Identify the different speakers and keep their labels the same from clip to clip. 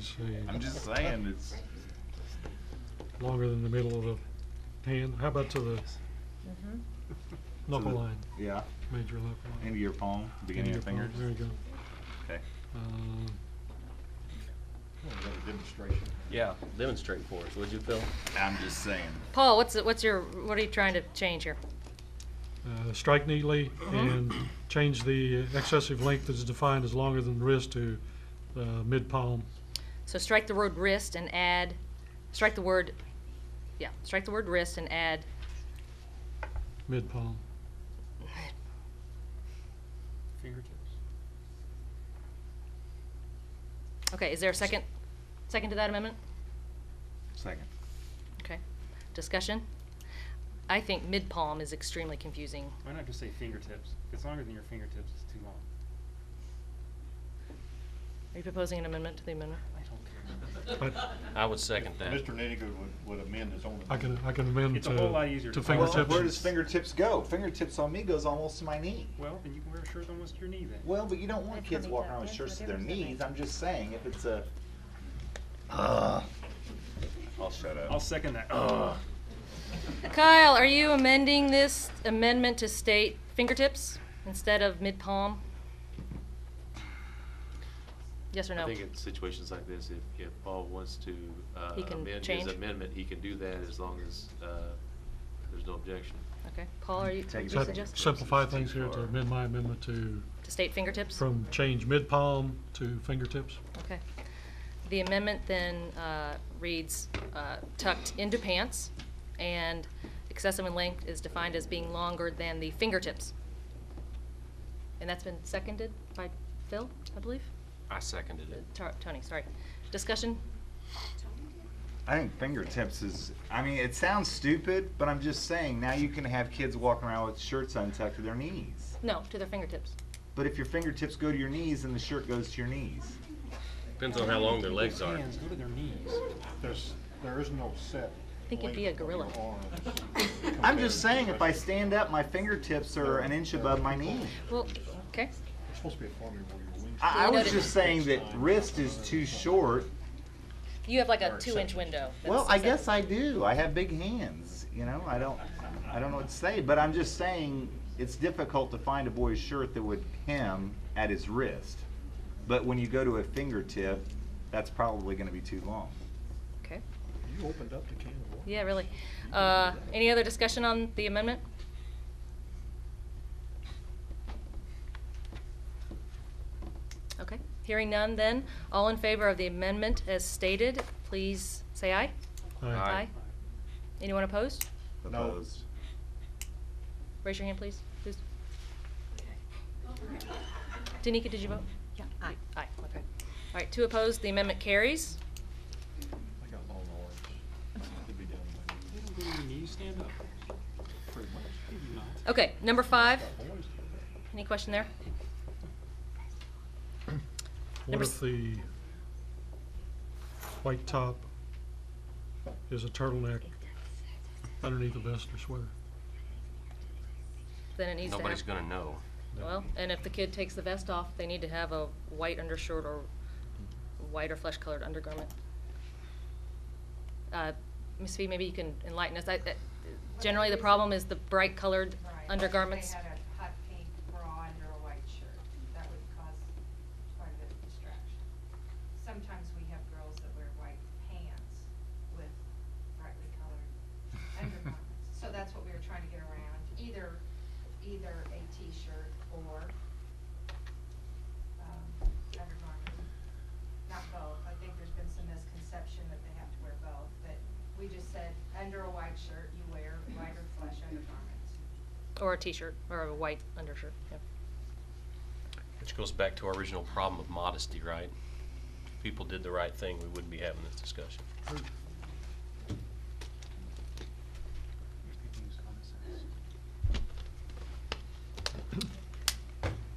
Speaker 1: see.
Speaker 2: I'm just saying, it's,
Speaker 1: Longer than the middle of the hand. How about to the
Speaker 3: Mm-hmm.
Speaker 1: knuckle
Speaker 2: the-
Speaker 1: line,
Speaker 2: yeah,
Speaker 1: major knuckle line?
Speaker 2: end of your palm, beginning of your
Speaker 1: End
Speaker 2: fingers.
Speaker 1: palm. There you go.
Speaker 2: Okay.
Speaker 1: Uh,
Speaker 4: Demonstration.
Speaker 5: Yeah, demonstrate for us, would you, Phil?
Speaker 2: I'm just saying,
Speaker 3: Paul, what's, the- what's your, what are you trying to change here?
Speaker 1: uh, strike neatly and change the excessive length that's defined as longer than the wrist to uh, mid palm.
Speaker 3: So strike the word wrist and add, strike the word, yeah, strike the word wrist and add,
Speaker 1: Mid palm.
Speaker 5: Fingertips.
Speaker 3: okay, is there a second, second to that amendment?
Speaker 2: second.
Speaker 3: Okay, discussion? I think mid-palm is extremely confusing.
Speaker 6: Why not just say fingertips? If it's longer than your fingertips, it's too long.
Speaker 3: Are you proposing an amendment to the amendment?
Speaker 6: I don't care.
Speaker 1: I,
Speaker 5: I would second that.
Speaker 4: Mr. Nittiger would, would amend his own.
Speaker 1: I can, I can amend to.
Speaker 6: It's a whole lot easier
Speaker 1: To
Speaker 6: to follow.
Speaker 1: fingertips.
Speaker 6: Well,
Speaker 2: Where does fingertips go? Fingertips on me goes almost to my knee.
Speaker 6: Well, then you can wear a shirt almost to your knee then.
Speaker 2: Well, but you don't want
Speaker 3: That's
Speaker 2: kids walking
Speaker 3: what they
Speaker 2: around
Speaker 3: do.
Speaker 2: with
Speaker 3: That's
Speaker 2: shirts
Speaker 3: what
Speaker 2: to their
Speaker 3: they do.
Speaker 2: knees, I'm just saying, if it's a. Ugh. I'll shut up.
Speaker 6: I'll second that. Ugh.
Speaker 3: Kyle, are you amending this amendment to state fingertips instead of mid-palm? Yes or no?
Speaker 5: I think in situations like this, if, if Paul wants to uh,
Speaker 3: He can
Speaker 5: amend his
Speaker 3: change.
Speaker 5: amendment, he can do that as long as uh, there's no objection.
Speaker 3: Okay, Paul, are you
Speaker 2: Take
Speaker 1: Does
Speaker 2: it
Speaker 1: that
Speaker 3: suggesting
Speaker 1: simplify things here to amend my amendment to,
Speaker 3: to state fingertips?
Speaker 1: from change mid palm to fingertips?
Speaker 3: Okay. The amendment then uh, reads uh, tucked into pants, and excessive in length is defined as being longer than the fingertips. And that's been seconded by Phil, I believe?
Speaker 5: I seconded it.
Speaker 3: Tar- Tony, sorry. Discussion?
Speaker 2: I think fingertips is. I mean, it sounds stupid, but I'm just saying. Now you can have kids walking around with shirts untucked to their knees.
Speaker 3: No, to their fingertips.
Speaker 2: But if your fingertips go to your knees, then the shirt goes to your knees.
Speaker 5: Depends on how long their legs are.
Speaker 6: Hands go to their knees.
Speaker 4: There's, there is no set.
Speaker 3: I think you'd be a
Speaker 4: length of your
Speaker 3: gorilla.
Speaker 4: arms
Speaker 2: I'm
Speaker 4: compared to
Speaker 2: just saying,
Speaker 4: the
Speaker 2: if I
Speaker 4: rest.
Speaker 2: stand up, my fingertips are an inch above my knee.
Speaker 3: Well, okay.
Speaker 4: It's supposed to be a formula where your wings.
Speaker 2: I, I was
Speaker 3: Noted.
Speaker 2: just saying that wrist is too short.
Speaker 3: You have like a
Speaker 4: Or
Speaker 3: two-inch
Speaker 4: acceptance.
Speaker 3: window.
Speaker 2: Well,
Speaker 3: That's
Speaker 2: I
Speaker 3: accept-
Speaker 2: guess I do. I have big hands. You know, I don't. I don't know what to say. But I'm just saying, it's difficult to find a boy's shirt that would hem at his wrist. But when you go to a fingertip, that's probably going to be too long.
Speaker 3: Okay.
Speaker 4: You opened up the can of worms.
Speaker 3: Yeah, really. Uh, Any other discussion on the amendment? Okay, hearing none then. All in favor of the amendment as stated, please say aye.
Speaker 5: Aye.
Speaker 3: Anyone opposed?
Speaker 4: No.
Speaker 2: Opposed.
Speaker 3: Raise your hand, please. Please. Danica, did you vote? Yeah. Aye. Aye, okay. All right, two opposed, the amendment carries.
Speaker 4: I got long arms. It'd be down to my knees,
Speaker 6: You don't go to your knees, stand up.
Speaker 4: pretty much.
Speaker 6: You do not.
Speaker 3: Okay, number five.
Speaker 4: Got boys do that.
Speaker 3: Any question there?
Speaker 1: What
Speaker 3: Number
Speaker 1: if
Speaker 3: s-
Speaker 1: the white top is a turtleneck underneath a vest or sweater?
Speaker 3: Then it needs to have.
Speaker 5: Nobody's gonna know.
Speaker 3: Well, and if the kid takes the vest off, they need to have a white undershirt or white or flesh-colored undergarment. Uh, Ms. Fee, maybe you can enlighten us. I, I- generally, the problem is the bright-colored
Speaker 7: Right.
Speaker 3: undergarments.
Speaker 7: They had a hot pink bra under a white shirt. That would cause quite a bit of distraction. Sometimes we have girls that wear white pants with brightly colored undergarments. So that's what we were trying to get around, either, either a t-shirt or, um, undergarment. Not both. I think there's been some misconception that they have to wear both, but we just said, under a white shirt, you wear white or flesh undergarments.
Speaker 3: Or a t-shirt, or a white undershirt, yeah.
Speaker 5: Which goes back to our original problem of modesty, right? If people did the right thing, we wouldn't be having this discussion.
Speaker 6: If you can use common sense.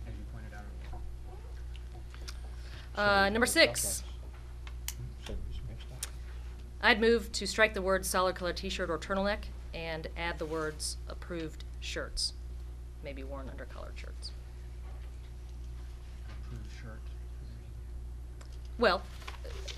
Speaker 6: As you pointed out earlier.
Speaker 3: Uh, number six,
Speaker 4: So it's mixed up.
Speaker 3: I'd move to strike the words solid-colored t-shirt or turtleneck and add the words approved shirts, maybe worn under colored shirts.
Speaker 6: Approved shirt.
Speaker 3: Well,